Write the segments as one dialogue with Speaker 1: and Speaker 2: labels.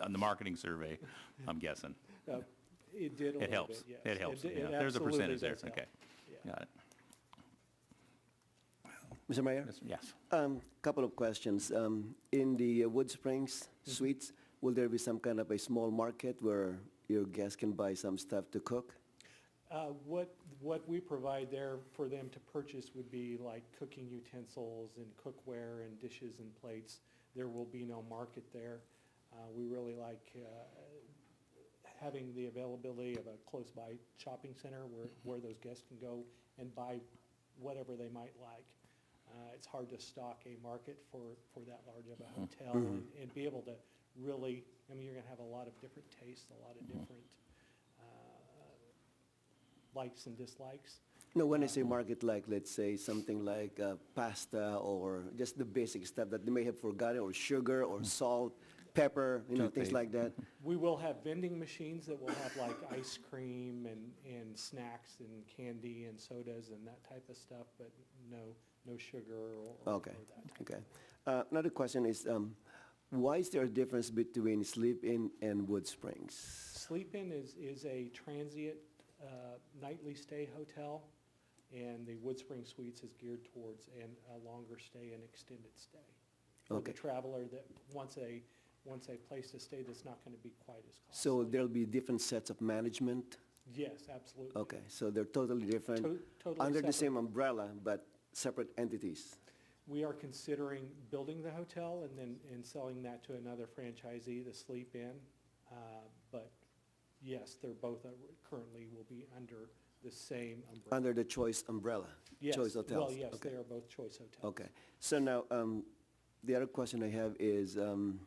Speaker 1: on the marketing survey, I'm guessing.
Speaker 2: It did
Speaker 1: It
Speaker 2: a little
Speaker 1: helps.
Speaker 2: bit, yes.
Speaker 1: It helps.
Speaker 2: d-
Speaker 1: Yeah,
Speaker 2: it
Speaker 1: There's a
Speaker 2: absolutely
Speaker 1: percentage there.
Speaker 2: does help.
Speaker 1: Okay.
Speaker 2: Yeah.
Speaker 1: Got it.
Speaker 3: Mr. Mayor?
Speaker 1: Yes- Yes.
Speaker 3: Um, Couple of questions. Um, In the uh, Wood Springs Suites, will there be some kind of a small market where your guests can buy some stuff to cook?
Speaker 2: Uh, What, what we provide there for them to purchase would be like cooking utensils and cookware and dishes and plates. There will be no market there. Uh, We really like uh, having the availability of a close-by shopping center where, where those guests can go and buy whatever they might like. Uh, It's hard to stock a market for, for that large of a hotel and- and be able to really, I mean, you're gonna have a lot of different tastes, a lot of different uh, likes and dislikes.
Speaker 3: No, when I say market, like, let's say, something like uh, pasta or just the basic stuff that they may have forgotten, or sugar, or salt, pepper, you know, things
Speaker 1: Toothpaste.
Speaker 3: like that.
Speaker 2: We will have vending machines that will have like ice cream and, and snacks and candy and sodas and that type of stuff, but no, no sugar or. or
Speaker 3: Okay,
Speaker 2: that type.
Speaker 3: okay. Uh, Another question is, um, why is there a difference between Sleep-In and Wood Springs?
Speaker 2: Sleep-In is, is a transient uh, nightly stay hotel, and the Wood Spring Suites is geared towards an, a longer stay and extended stay. For the
Speaker 3: Okay.
Speaker 2: traveler that wants a, wants a place to stay that's not gonna be quite as costly.
Speaker 3: So there'll be different sets of management?
Speaker 2: Yes, absolutely.
Speaker 3: Okay, so they're totally different,
Speaker 2: To- Totally
Speaker 3: under the
Speaker 2: separate.
Speaker 3: same umbrella, but separate entities.
Speaker 2: We are considering building the hotel and then, and selling that to another franchisee to sleep in. Uh, But yes, they're both uh, currently will be under the same umbrella.
Speaker 3: Under the Choice umbrella,
Speaker 2: Yes,
Speaker 3: Choice Hotels.
Speaker 2: Well, yes,
Speaker 3: Okay.
Speaker 2: they are both Choice Hotels.
Speaker 3: Okay, so now, um, the other question I have is, um,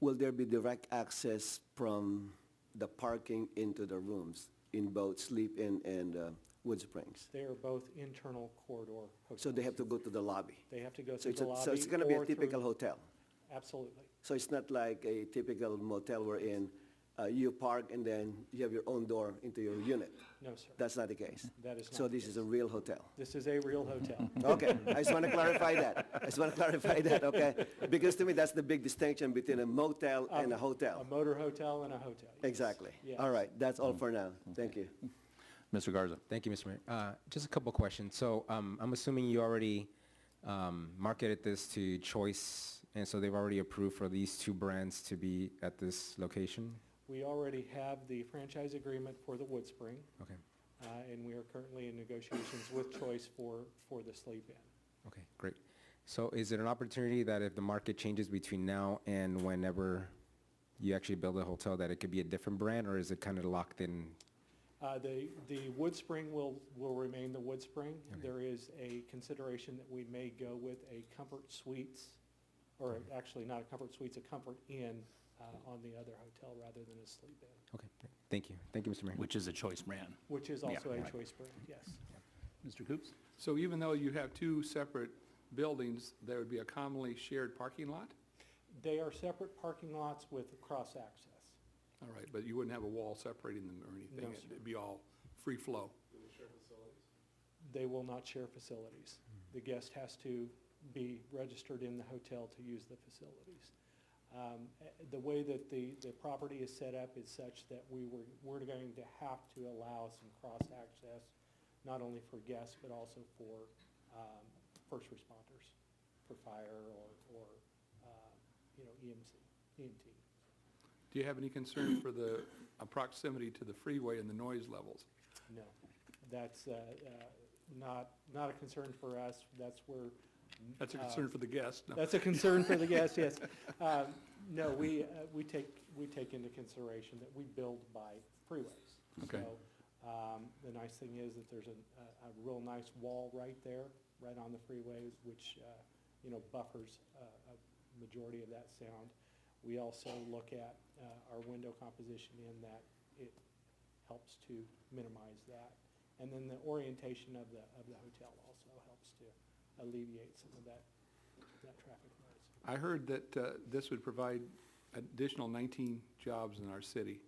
Speaker 3: will there be direct access from the parking into the rooms in both Sleep Inn and uh, Wood Springs?
Speaker 2: They are both internal corridor hotels.
Speaker 3: So they have to go to the lobby?
Speaker 2: They have to go
Speaker 3: So
Speaker 2: through
Speaker 3: it's,
Speaker 2: the
Speaker 3: a-
Speaker 2: lobby.
Speaker 3: so it's gonna be a
Speaker 2: or through-
Speaker 3: typical hotel?
Speaker 2: Absolutely.
Speaker 3: So it's not like a typical motel wherein uh, you park and then you have your own door into your unit.
Speaker 2: No, sir.
Speaker 3: That's not the case.
Speaker 2: That is not.
Speaker 3: So
Speaker 2: the
Speaker 3: this is a
Speaker 2: case.
Speaker 3: real hotel.
Speaker 2: This is a real hotel.
Speaker 3: Okay, I just want to clarify that. I just want to clarify that, okay? Because to me, that's the big distinction between a motel and a
Speaker 2: Um, A
Speaker 3: hotel.
Speaker 2: motor hotel and a hotel. yes.
Speaker 3: Exactly.
Speaker 2: Yes.
Speaker 3: All right, that's all for now. Thank you.
Speaker 1: Mr. Garza.
Speaker 4: Thank you, Mr. Mayor. Uh, Just a couple of questions. So um, I'm assuming you already um, marketed this to Choice, and so they've already approved for these two brands to be at this location?
Speaker 2: We already have the franchise agreement for the Wood Spring.
Speaker 4: Okay,
Speaker 2: uh, and we are currently in negotiations with Choice for, for the sleep-in.
Speaker 4: okay, great. So is it an opportunity that if the market changes between now and whenever you actually build a hotel, that it could be a different brand, or is it kind of locked in?
Speaker 2: Uh, The, the Wood Spring will, will remain the Wood Spring. There is a consideration that we may go with a Comfort Suites, or actually not a Comfort Suites, a Comfort Inn uh, on the other hotel rather than a sleep-in,
Speaker 4: Okay, thank you. Thank you, Mr. Mayor.
Speaker 1: Which is a choice brand.
Speaker 2: which is
Speaker 1: Yeah,
Speaker 2: also a
Speaker 1: right.
Speaker 2: Choice brand, yes.
Speaker 1: Mr. Coops?
Speaker 5: So even though you have two separate buildings, there would be a commonly shared parking lot?
Speaker 2: They are separate parking lots with cross-access.
Speaker 5: All right, but you wouldn't have a wall separating them or anything?
Speaker 2: No,
Speaker 5: It'd-
Speaker 2: sir.
Speaker 5: It'd be all free flow?
Speaker 2: They will not share facilities. The guest has to be registered in the hotel to use the facilities. Um, eh, The way that the, the property is set up is such that we were, we're going to have to allow some cross-access, not only for guests, but also for um, first responders, for fire or, or, uh, you know, EMC, EMT.
Speaker 5: Do you have any concern for the uh, proximity to the freeway and the noise levels?
Speaker 2: No, that's uh, uh, not, not a concern for us. That's where.
Speaker 5: That's a
Speaker 2: uh,
Speaker 5: concern for the guests. no.
Speaker 2: That's a concern for the guests, yes. Um, No, we, uh, we take, we take into consideration that we build by freeways.
Speaker 5: Okay.
Speaker 2: So um, the nice thing is that there's a, a- a real nice wall right there, right on the freeways, which, uh, you know, buffers uh, a majority of that sound. We also look at uh, our window composition in that it helps to minimize that. And then the orientation of the, of the hotel also helps to alleviate some of that, that traffic noise.
Speaker 5: I heard that uh, this would provide additional 19 jobs in our city.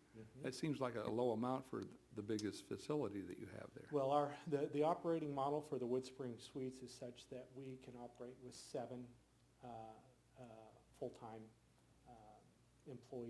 Speaker 5: That seems like a low amount for the biggest facility that you have there.
Speaker 2: Well, our, the, the operating model for the Wood Spring Suites is such that we can operate with seven uh, uh, full-time uh, employees.